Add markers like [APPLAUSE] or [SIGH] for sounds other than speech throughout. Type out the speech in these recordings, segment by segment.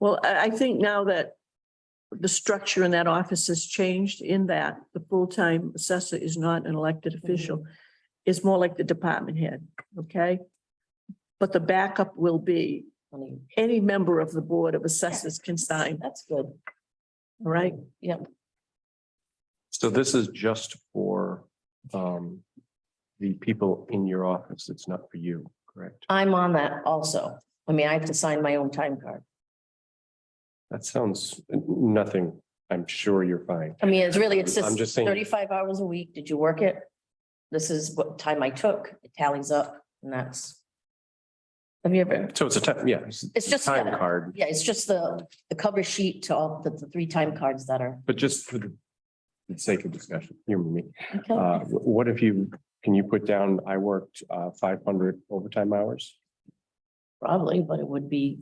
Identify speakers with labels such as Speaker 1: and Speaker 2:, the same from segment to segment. Speaker 1: Well, I, I think now that the structure in that office has changed in that the full-time assessor is not an elected official. It's more like the department head, okay? But the backup will be
Speaker 2: I mean,
Speaker 1: any member of the Board of Assessors can sign,
Speaker 2: That's good.
Speaker 1: all right?
Speaker 3: So this is just for um the people in your office. It's not for you, correct?
Speaker 2: I'm on that also. I mean, I have to sign my own time card.
Speaker 3: That sounds nothing. I'm sure you're fine.
Speaker 2: I mean, it's really, it's
Speaker 3: I'm
Speaker 2: just
Speaker 3: just saying-
Speaker 2: thirty-five hours a week. Did you work it? This is what time I took. It tallies up and that's. Have you ever,
Speaker 3: So it's a time, yeah.
Speaker 2: It's just-
Speaker 3: Time card,
Speaker 2: yeah, it's just the, the cover sheet to all the, the three time cards that are.
Speaker 3: but just for the the sake of discussion, you and me.
Speaker 2: Okay.
Speaker 3: Uh, wh- what if you, can you put down, I worked uh five hundred overtime hours?
Speaker 2: Probably, but it would be.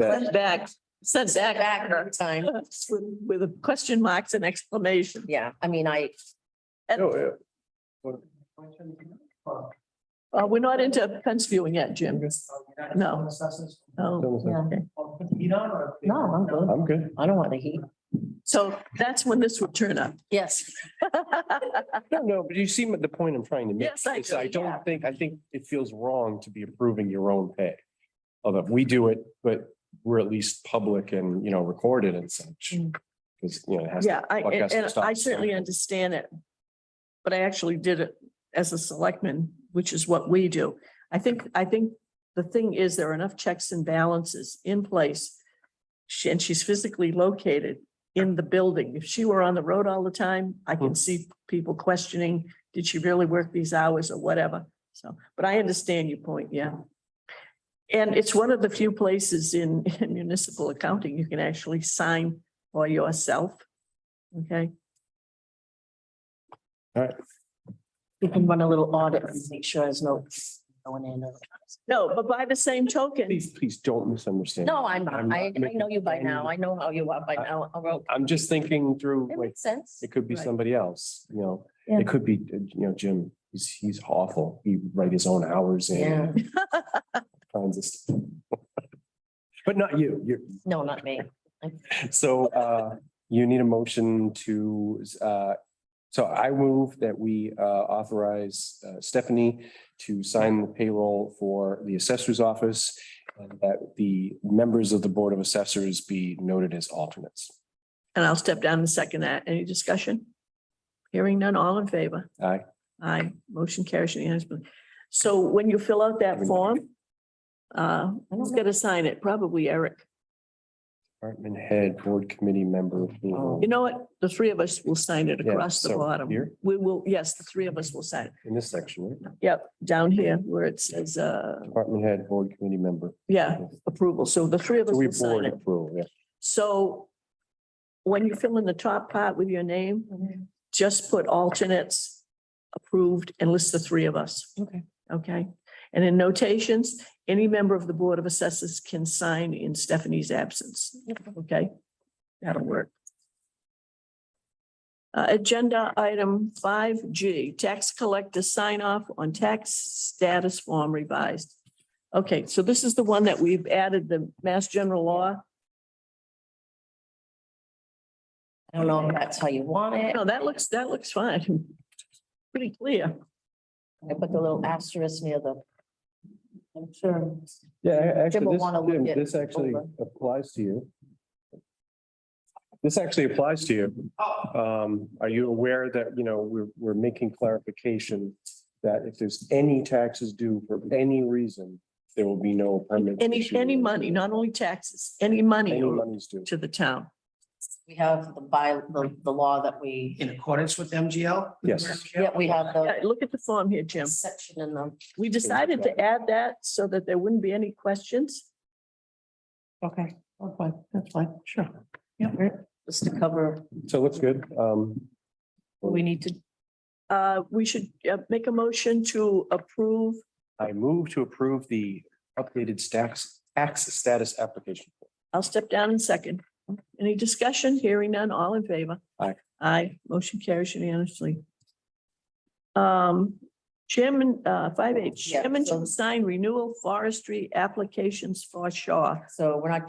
Speaker 1: Send back, send
Speaker 2: Back
Speaker 1: back
Speaker 2: time.
Speaker 1: with with a question marks and exclamation.
Speaker 2: Yeah, I mean, I,
Speaker 3: No, uh,
Speaker 1: Uh, we're not into fence viewing yet, Jim. No. Oh, okay.
Speaker 2: no, I'm good.
Speaker 3: I'm good.
Speaker 2: I don't want the heat.
Speaker 1: So that's when this would turn up.
Speaker 2: Yes.
Speaker 3: No, no, but you see the point I'm trying to make.
Speaker 1: Yes, I
Speaker 3: It's-
Speaker 1: do,
Speaker 3: I
Speaker 2: yeah.
Speaker 3: don't think, I think it feels wrong to be approving your own pay. Although we do it, but we're at least public and, you know, recorded and such.
Speaker 2: Mm.
Speaker 3: Because, you know, it has. to-
Speaker 1: Yeah, I,
Speaker 3: podcast
Speaker 1: and
Speaker 3: and
Speaker 1: and
Speaker 3: stuff.
Speaker 1: I certainly understand it. But I actually did it as a selectman, which is what we do. I think, I think the thing is there are enough checks and balances in place. She, and she's physically located in the building. If she were on the road all the time, I can
Speaker 3: Hmm.
Speaker 1: see people questioning, did she really work these hours or whatever? So, but I understand your point, yeah. And it's one of the few places in [LAUGHS] in municipal accounting you can actually sign for yourself. Okay,
Speaker 2: We can run a little audit and make sure there's no going in. or-
Speaker 1: no, but by the same token,
Speaker 3: Please, please don't misunderstand.
Speaker 2: No, I'm, not.
Speaker 3: I'm not
Speaker 2: I, I know you by
Speaker 3: making
Speaker 2: now.
Speaker 3: any-
Speaker 2: I know how you are by now. I wrote,
Speaker 3: I'm just thinking through,
Speaker 2: it
Speaker 3: like,
Speaker 2: makes sense.
Speaker 3: it could be
Speaker 1: Right.
Speaker 3: somebody else, you know,
Speaker 2: Yeah.
Speaker 3: it could be, uh, you know, Jim, he's, he's awful. He write his own hours
Speaker 2: Yeah,
Speaker 3: in. Kinds of stuff. [LAUGHS] But not you, you're,
Speaker 2: no, not me.
Speaker 3: So uh, you need a motion to, uh, so I move that we uh, authorize uh, Stephanie to sign the payroll for the assessor's office and that the members of the Board of Assessors be noted as alternates.
Speaker 1: and I'll step down and second that. Any discussion? Hearing none, all in favor?
Speaker 3: Aye.
Speaker 1: Aye, motion carries unanimously. So when you fill out that form, uh, who's gonna sign it? Probably Eric.
Speaker 3: Department head, board committee member. payroll.
Speaker 1: You know what? The three of us will sign it
Speaker 3: Yeah,
Speaker 1: across the
Speaker 3: so
Speaker 1: bottom.
Speaker 3: Here
Speaker 1: We will, yes, the three of us will sign.
Speaker 3: in this section, right?
Speaker 1: it. Yep, down here where it says, uh,
Speaker 3: department head, board committee member.
Speaker 1: yeah, approval. So the three of us
Speaker 3: So we
Speaker 1: will sign
Speaker 3: board
Speaker 1: it.
Speaker 3: approval, yeah.
Speaker 1: So when you fill in the top part with your name,
Speaker 2: Mhm.
Speaker 1: just put alternates approved and list the three of us,
Speaker 2: Okay.
Speaker 1: okay? And in notations, any member of the Board of Assessors can sign in Stephanie's absence, okay? That'll work. Uh, agenda item five G, tax collector sign off on tax status form revised. Okay, so this is the one that we've added the Mass General Law.
Speaker 2: I don't know if that's how you want it.
Speaker 1: No, that looks, that looks fine. [LAUGHS] Pretty clear.
Speaker 2: I put the little asterisk near the. I'm sure.
Speaker 3: Yeah, a-
Speaker 2: Jim will
Speaker 3: actually,
Speaker 2: wanna
Speaker 3: this,
Speaker 2: look
Speaker 3: Jim,
Speaker 2: it
Speaker 3: this actually
Speaker 2: over.
Speaker 3: applies to you. This actually applies to you. Um, are you aware that, you know, we're, we're making clarification that if there's any taxes due for any reason, there will be no permanent.
Speaker 1: Any,
Speaker 3: issue.
Speaker 1: any money, not only taxes, any money
Speaker 3: Any money's due.
Speaker 1: to the town.
Speaker 2: We have the by, the, the law that we,
Speaker 4: in accordance with MGL?
Speaker 3: Yes.
Speaker 2: yeah, we have
Speaker 1: Yeah,
Speaker 2: the
Speaker 1: Look at the form here, Jim.
Speaker 2: section in the.
Speaker 1: We decided to add that so that there wouldn't be any questions.
Speaker 2: Okay, okay, that's fine, sure. Yeah. Just to cover,
Speaker 3: So it looks good. Um,
Speaker 2: we need to,
Speaker 1: Uh, we should uh, make a motion to approve.
Speaker 3: I move to approve the updated stacks, tax status application.
Speaker 1: I'll step down in second. Any discussion? Hearing none, all in favor?
Speaker 3: Aye.
Speaker 1: Aye, motion carries unanimously. Um, Chairman, uh, five H,
Speaker 2: Yeah,
Speaker 1: Chairman
Speaker 2: so-
Speaker 1: to sign renewal forestry applications for Shaw.
Speaker 2: so we're not